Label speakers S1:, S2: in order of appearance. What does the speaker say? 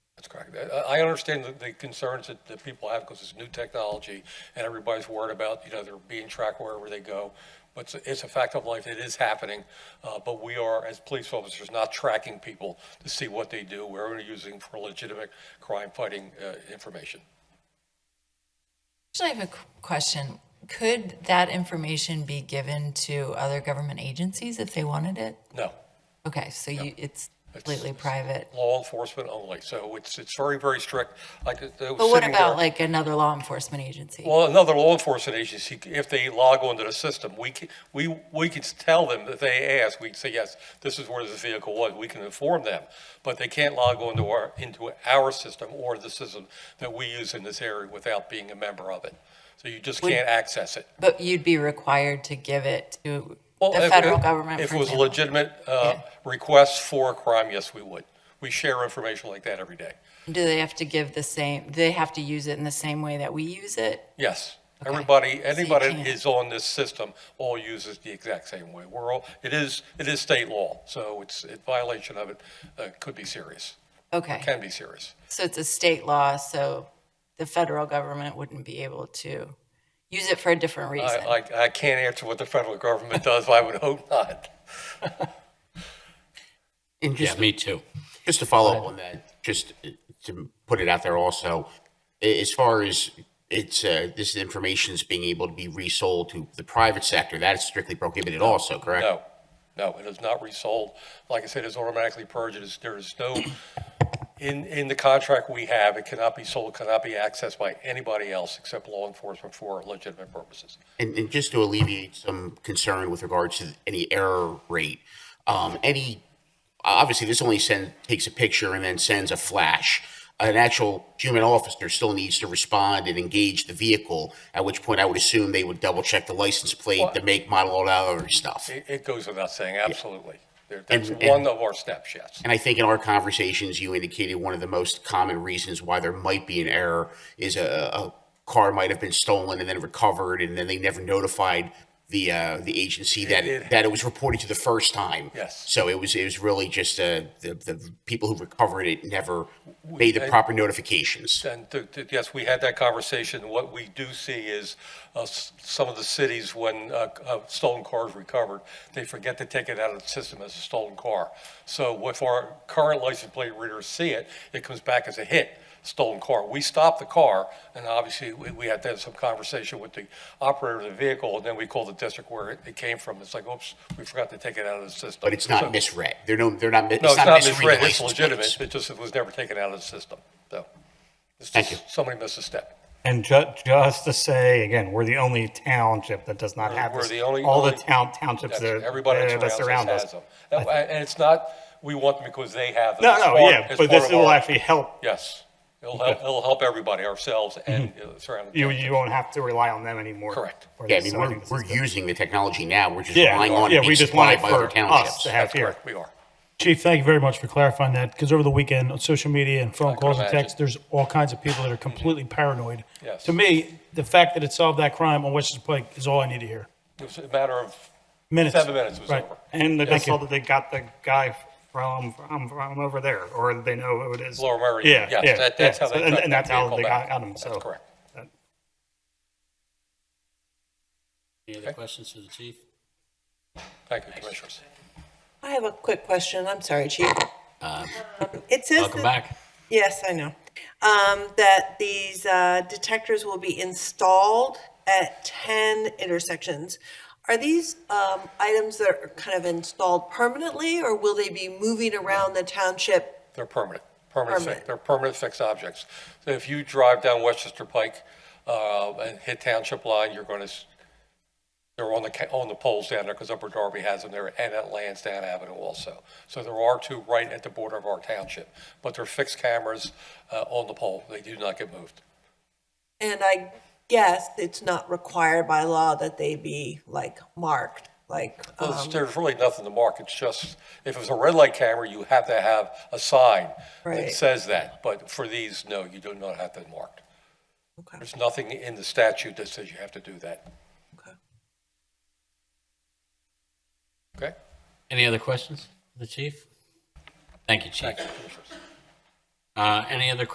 S1: I I understand the- the concerns that, that people have because it's new technology and everybody's worried about, you know, they're being tracked wherever they go. But it's, it's a fact of life. It is happening. Uh, but we are, as police officers, not tracking people to see what they do. We're only using for legitimate crime-fighting uh, information.
S2: Actually, I have a qu- question. Could that information be given to other government agencies if they wanted it?
S1: No,
S2: Okay, so you, it's completely
S1: it's-
S2: private.
S1: law enforcement only. So it's, it's very, very strict. Like, it was
S2: But what
S1: sitting there-
S2: about like another law enforcement agency?
S1: Well, another law enforcement agency, if they log onto the system, we can, we, we can tell them that they ask, we can say, yes, this is where this vehicle was, we can inform them, but they can't log onto our, into our system or the system that we use in this area without being a member of it. So you just can't access it.
S2: But you'd be required to give it to
S1: Well,
S2: the
S1: if-
S2: federal
S1: if-
S2: government,
S1: If
S2: for
S1: it was a
S2: example?
S1: legitimate, uh,
S2: Yeah.
S1: request for a crime, yes, we would. We share information like that every day.
S2: Do they have to give the same, do they have to use it in the same way that we use it?
S1: Yes.
S2: Okay.
S1: Everybody, anybody
S2: can't-
S1: that is on this system all uses the exact same way. We're all, it is, it is state law, so it's, it- violation of it uh, could be serious,
S2: Okay,
S1: can be serious.
S2: so it's a state law, so the federal government wouldn't be able to use it for a different
S1: I,
S2: reason.
S1: I, I can't answer what the federal government does, but I would hope not.
S3: And
S4: Yeah,
S3: just,
S4: me too.
S3: just to follow up on that, just to put it out there also, a- as far as it's, uh, this information is being able to be resold to the private sector, that is strictly prohibited also, correct?
S1: No, no, it is not resold. Like I said, it's automatically purged. It is- There is no, in, in the contract we have, it cannot be sold, cannot be accessed by anybody else except law enforcement for legitimate purposes.
S3: And, and just to alleviate some concern with regards to any error rate, um, any, obviously, this only send, takes a picture and then sends a flash. An actual human officer still needs to respond and engage the vehicle, at which point I would assume they would double check the license plate, the make, model, all that other stuff.
S1: It, it goes without saying, absolutely. There-
S3: And-
S1: That's
S3: and-
S1: one of our steps, yes.
S3: And I think in our conversations, you indicated one of the most common reasons why there might be an error is a, a car might have been stolen and then recovered, and then they never notified the uh, the agency that
S1: It- it-
S3: that it was reported to the first time.
S1: Yes.
S3: So it was it was really just uh, the the people who recovered it never made the proper notifications.
S1: And th- th- yes, we had that conversation. What we do see is uh, s- some of the cities, when uh, c- uh, stolen cars recovered, they forget to take it out of the system as a stolen car. So if our current license plate readers see it, it comes back as a hit, stolen car. We stop the car, and obviously, we we have to have some conversation with the operator of the vehicle, and then we call the district where it- it came from. It's like, oops, we forgot to take it out of the system.
S3: But it's not
S1: So-
S3: misread. They're no they're not.
S1: No, it's not
S3: misreading
S1: misread. It's
S3: license plates.
S1: legitimate. It just, it was never taken out of the system, so. it's
S3: Thank
S1: just-
S3: you.
S1: Somebody missed a step.
S5: And ju- just to say, again, we're the only township that does not have
S1: We're
S5: this.
S1: the only-
S5: All the
S1: only-
S5: town, townships
S1: That's-
S5: that,
S1: Everybody
S5: that that
S1: that surrounds
S5: surround
S1: us
S5: uh, us.
S1: has them. And and it's not, we want them because they have them.
S5: No,
S1: It's
S5: no,
S1: part-
S5: yeah,
S1: it's
S5: but
S1: part
S5: this
S1: of
S5: will
S1: our-
S5: actually help.
S1: Yes. It'll help, it'll help everybody, ourselves and uh, surrounding.
S5: Mm-hmm. You,
S1: townships.
S5: you won't have to rely on them anymore.
S1: Correct.
S5: for
S3: Yeah, I
S5: this,
S3: mean
S5: so
S3: we're,
S5: think this
S3: we're
S5: is good.
S3: using the technology now. We're just
S5: Yeah,
S3: relying on
S5: yeah,
S3: it
S5: we
S3: being
S5: just want it
S3: supplied by other
S5: for us
S3: townships.
S5: to have
S1: That's
S5: here.
S1: correct, we are.
S6: Chief, thank you very much for clarifying that, because over the weekend, on social media and phone
S1: can
S6: calls and
S1: imagine.
S6: texts, there's all kinds of people that are completely paranoid.
S1: Yes.
S6: To me, the fact that it solved that crime on Westchester Pike is all I need to hear.
S1: It was a matter of,
S6: Minutes.
S1: Seven minutes was
S6: Right.
S1: over.
S5: And that they
S6: Thank you.
S5: saw that they got the guy from, from, from over there, or they know who it is.
S1: Laura Murray,
S5: Yeah,
S1: yes,
S5: yeah,
S1: that- that's how
S5: yeah.
S1: they
S5: So- and-
S1: tracked
S5: And
S1: that
S5: that's how
S1: vehicle
S5: they
S1: back.
S5: got, got him, so.
S1: that's correct.
S4: Any other questions for the chief?
S1: Thank you, commissioners.
S7: I have a quick question. I'm sorry, Chief. It says.
S4: Uh, Welcome
S7: that-
S4: back.
S7: Yes, I know. Um, that these, uh, detectors will be installed at ten intersections. Are these, um, items that are kind of installed permanently or will they be moving around the township?
S1: They're permanent, permanent, fix-
S7: Permanent.
S1: they're permanent fixed objects. So if you drive down Westchester Pike uh, and hit Township Line, you're going to, they're on the, ca- on the poles down there because Upper Darby has them there and at Lansdowne Avenue also. So there are two right at the border of our township, but they're fixed cameras uh, on the pole. They do not get moved.
S7: And I guess it's not required by law that they be like marked, like,
S1: Well,
S7: um,
S1: there's- There's really nothing to mark. It's just, if it's a red light camera, you have to have a sign that
S7: Right.
S1: says that. But for these, no, you do not have them marked.
S7: okay,
S1: There's nothing in the statute that says you have to do that.
S7: okay.
S1: Okay?
S4: Any other questions for the chief? Thank you, chief.
S1: Thank you, commissioners.
S4: Uh, any other